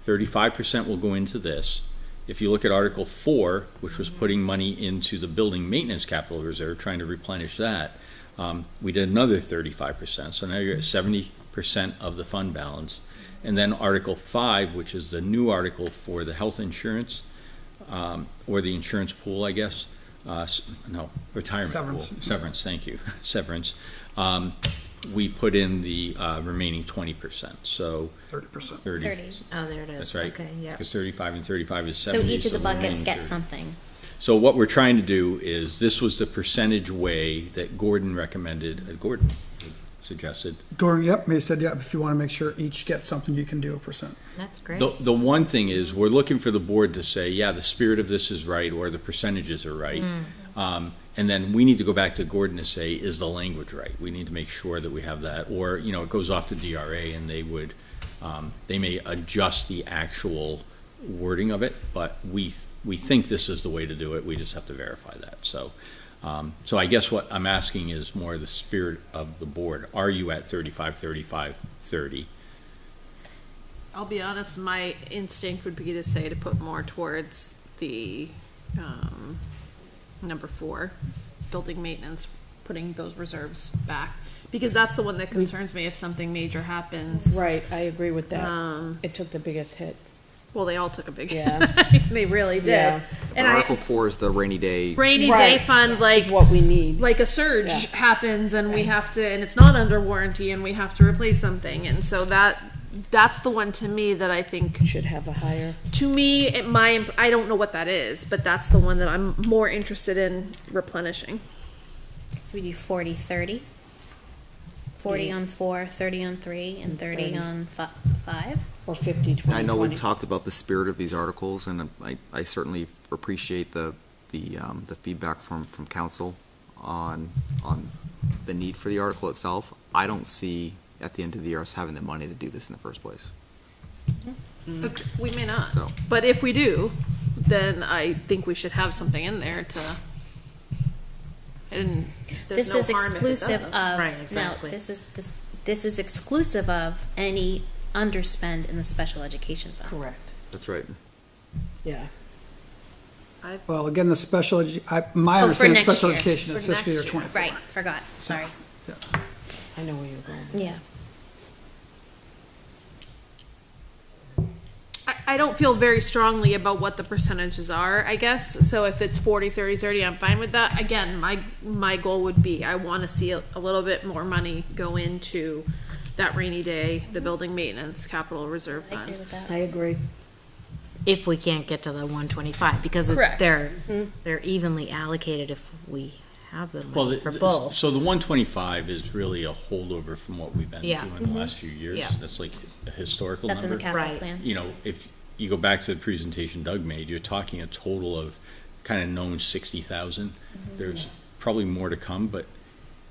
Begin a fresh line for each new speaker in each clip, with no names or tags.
Thirty-five percent will go into this. If you look at Article Four, which was putting money into the building maintenance capital reserve, trying to replenish that, um, we did another thirty-five percent. So now you're at seventy percent of the fund balance. And then Article Five, which is the new article for the health insurance, um, or the insurance pool, I guess. Uh, s- no, retirement pool.
Severance.
Severance, thank you, severance. Um, we put in the, uh, remaining twenty percent, so
thirty percent.
thirty.
Thirty. Oh, there it is.
That's right.
Okay, yeah.
Because thirty-five and thirty-five is
So
seventy.
each of the buckets
remaining
gets
30.
something.
So what we're trying to do is, this was the percentage way that Gordon recommended, uh, Gordon suggested.
Gordon, yep, May said, yep, if you want to make sure each gets something, you can do a percent.
That's great.
The, the one thing is, we're looking for the board to say, yeah, the spirit of this is right, or the percentages are right.
Mm.
Um, and then we need to go back to Gordon to say, is the language right? We need to make sure that we have that, or, you know, it goes off to DRA and they would, um, they may adjust the actual wording of it, but we, we think this is the way to do it, we just have to verify that, so. Um, so I guess what I'm asking is more the spirit of the board, are you at thirty-five, thirty-five, thirty?
I'll be honest, my instinct would be to say to put more towards the, um, number four, building maintenance, putting those reserves back. Because that's the one that concerns me if something major happens.
Right, I agree with that.
Um,
It took the biggest hit.
Well, they all took a big,
Yeah.
they really
Yeah.
did. And
Article
I,
four is the rainy day.
rainy day
Right.
fund, like,
Is what we need.
like a surge
Yeah.
happens and we have to and it's not under warranty and we have to replace something and so that that's the one to me that I think
Should have a higher.
to me it, my imp- I don't know what that is but that's the one that I'm more interested in replenishing.
We do 40, 30. 40
Yeah.
on four, 30 on three, and 30,
30.
on fi- five.
Or 50, 20,
I know we've
20.
talked about the spirit of these articles, and I, I certainly appreciate the, the, um, the feedback from, from council on, on the need for the article itself. I don't see at the end of the year us having the money to do this in the first place.
But we may not.
So-
But if we do, then I think we should have something in there to and
this
there's no
is
harm if it
exclusive
doesn't.
of
Right,
no
exactly.
this is this this is exclusive of any underspend in the special education fund
Correct,
That's right.
yeah.
I,
Well, again, the special, edu- I, my
Oh, for
understanding,
next
special
year.
education is
For
fiscal year
next year.
twenty-four.
right forgot sorry
I know where you're going.
yeah
I, I don't feel very strongly about what the percentages are, I guess. So if it's 40, 30, 30, I'm fine with that. Again, my, my goal would be I want to see a, a little bit more money go into that rainy day, the building maintenance capital reserve
i agree
fund.
with that
I agree.
if we can't get to the one twenty-five, because it-
Correct. Mm-hmm.
they're, they're evenly allocated if we have the
Well,
money
the-
for
the-
both.
So the one twenty-five is really a holdover from what we've been
Yeah.
doing the last few years.
Yeah.
That's like a historical
that's in the
number.
capital
Right.
plan
You know, if you go back to the presentation Doug made, you're talking a total of kind of known sixty thousand. There's probably more to come, but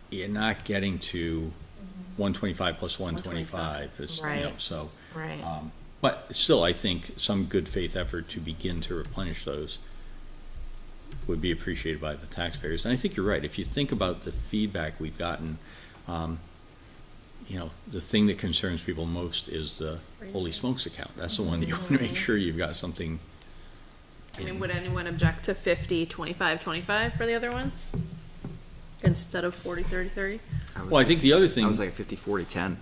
you're not getting to one twenty-five plus one twenty-five. It's, you know,
Right.
so.
Right.
um, But still, I think some good faith effort to begin to replenish those would be appreciated by the taxpayers. And I think you're right. If you think about the feedback we've gotten, um, you know, the thing that concerns people most is the holy smokes account. That's the one that you want to make sure you've got something.
I mean,
in.
would anyone object to 50, 25, 25 for the other ones? Instead of 40, 30, 30?
was
Well, I
like-
think the other thing.
I was like fifty, forty, ten.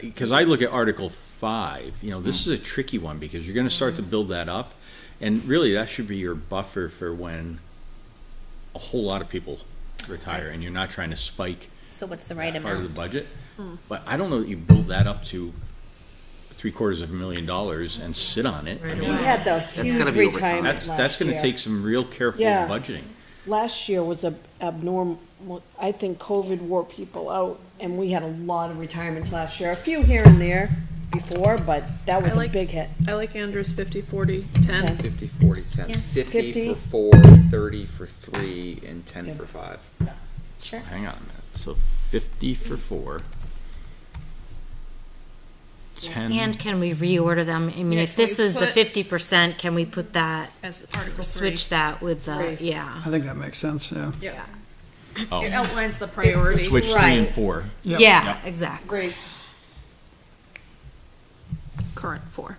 because I look at Article Five, you know, this is a tricky one because you're going to start to build that up, and really that should be your buffer for when a whole lot of people retire, and you're not trying to spike
so what's the right
that part of the
amount
budget. But I don't know that you build that up to three quarters of a million dollars and sit on it. I
Right.
mean,
We had the huge
gotta be over time.
retirement
that's that's
last
going to
year.
take some real careful
Yeah.
budgeting.
Last year was a abnormal, I think COVID wore people out, and we had a lot of retirements last year, a few here and there before, but that was
I
a
like-
big hit.
I like Andrew's 50, 40, 10.
Ten.
Fifty, forty, ten.
Yeah.
Fifty
Fifty.
for four, thirty for three, and ten
Ten.
for five.
sure
Hang on a minute. So fifty for four. Ten.
And can we reorder them? I mean,
Yeah,
if
can
this
we
is the
put-
fifty percent, can we put that,
As Article 3.
switch that with the,
Three.
yeah.
I think that makes sense, yeah.
Yeah.
Oh.
It outlines the priority.
Switch three and
Right.
four.
Yep.
Yeah, exactly.
Current four.